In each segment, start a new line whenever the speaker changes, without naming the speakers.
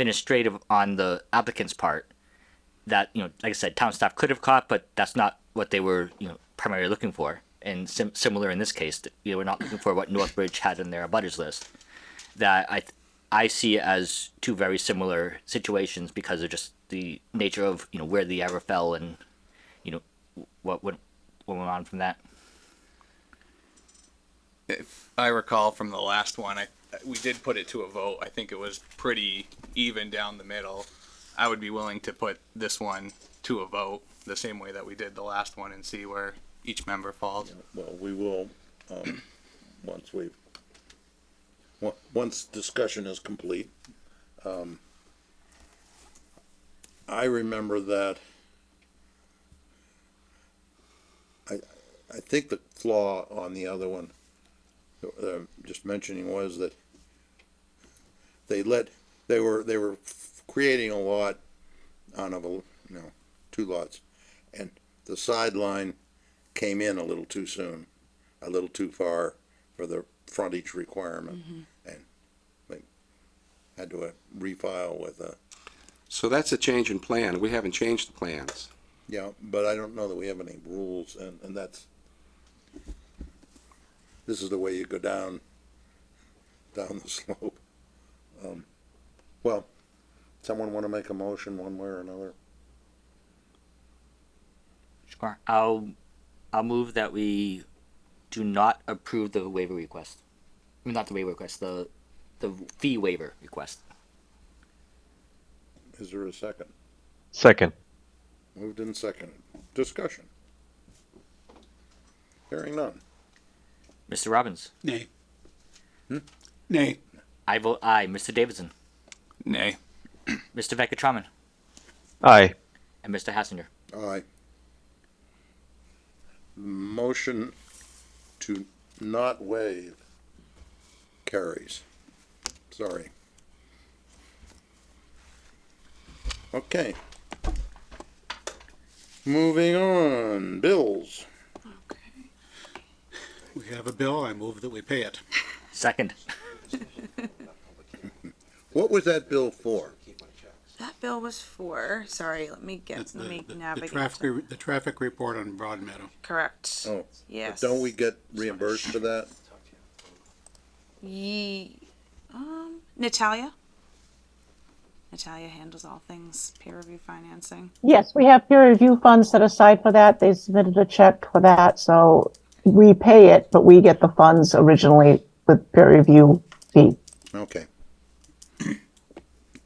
administrative on the applicant's part that you know, like I said, town staff could have caught, but that's not what they were you know primarily looking for. And sim- similar in this case, that, you know, we're not looking for what Northbridge had in their abutters list. That I th- I see as two very similar situations because of just the nature of you know where the error fell and you know what went what went on from that.
If I recall from the last one, I, we did put it to a vote. I think it was pretty even down the middle. I would be willing to put this one to a vote the same way that we did the last one and see where each member falls.
Well, we will, um, once we've, on- once discussion is complete. Um, I remember that I, I think the flaw on the other one, uh, just mentioning was that they let, they were, they were f- creating a lot on of a, you know, two lots. And the sideline came in a little too soon, a little too far for the frontage requirement, and they had to uh, refile with uh, a,
So that's a change in plan. We haven't changed the plans.
yeah, but I don't know that we have any rules, and, and that's, this is the way you go down, down the slope. Um, Well, someone wanna make a motion one way or another?
Sure. I'll I'll move that we do not approve the waiver request. I mean, not the waiver request, the the fee waiver request.
Is there a second?
Second.
Moved and seconded. Discussion? Hearing none.
Mr. Robbins.
Nay. Nay.
I vote aye. Mr. Davidson.
Nay.
Mr. Veckatraman.
Aye.
And Mr. Hassinger.
Aye. Motion to not waive carries. Sorry. Okay. Moving on, bills.
We have a bill, I move that we pay it.
Second.
What was that bill for?
That bill was for, sorry, let me get,
That's
let
the-
me
the- the
navigate.
traffic
to-
re- The traffic report on Broad Meadow.
Correct.
Oh, but
Yes.
don't we get reimbursed for that?
Ye, um, Natalia? Natalia handles all things peer review financing.
Yes, we have peer review funds set aside for that. They submitted a check for that, so we pay it, but we get the funds originally with peer review fee.
Okay.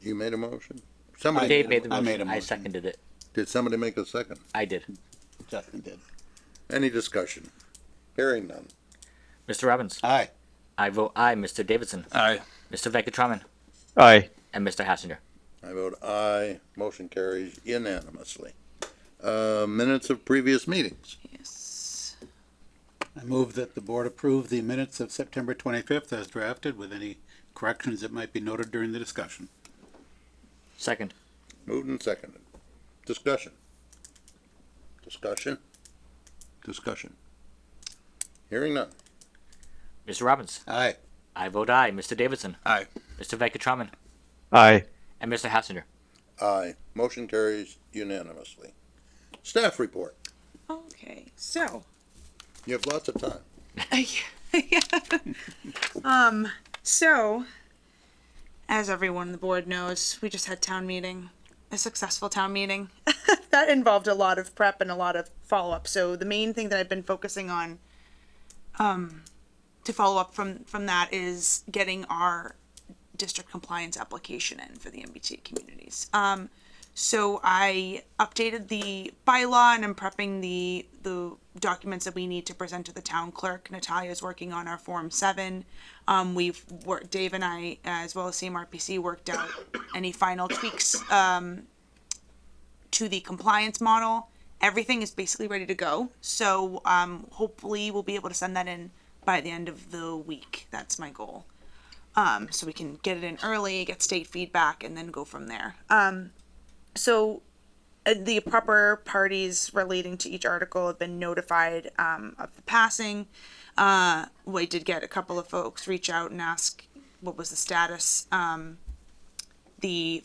You made a motion? Somebody,
Dave made the
I
motion.
made a
I
motion.
seconded it.
did somebody make a second?
I did.
Justin did.
Any discussion? Hearing none.
Mr. Robbins.
Aye.
I vote aye. Mr. Davidson.
Aye.
Mr. Veckatraman.
Aye.
And Mr. Hassinger.
I vote aye. Motion carries unanimously. Uh, minutes of previous meetings.
Yes.
I move that the board approve the minutes of September twenty-fifth as drafted with any corrections that might be noted during the discussion.
Second.
Moved and seconded. Discussion. Discussion. Discussion. Hearing none.
Mr. Robbins.
Aye.
I vote aye. Mr. Davidson.
Aye.
Mr. Veckatraman.
Aye.
And Mr. Hassinger.
Aye. Motion carries unanimously. Staff report.
Okay, so,
You have lots of time.
Um, So, as everyone on the board knows, we just had town meeting, a successful town meeting. that involved a lot of prep and a lot of follow up. So the main thing that I've been focusing on um, to follow up from from that is getting our district compliance application in for the MBTA communities. Um, so I updated the bylaw and I'm prepping the the documents that we need to present to the town clerk. Natalia's working on our form seven. Um, we've worked, Dave and I, as well as CMRPC, worked out any final tweaks um, to the compliance model. Everything is basically ready to go. So um, hopefully we'll be able to send that in by the end of the week. That's my goal. Um, so we can get it in early, get state feedback, and then go from there. Um, so uh, the proper parties relating to each article have been notified um, of the passing. Uh, we did get a couple of folks reach out and ask what was the status. Um, the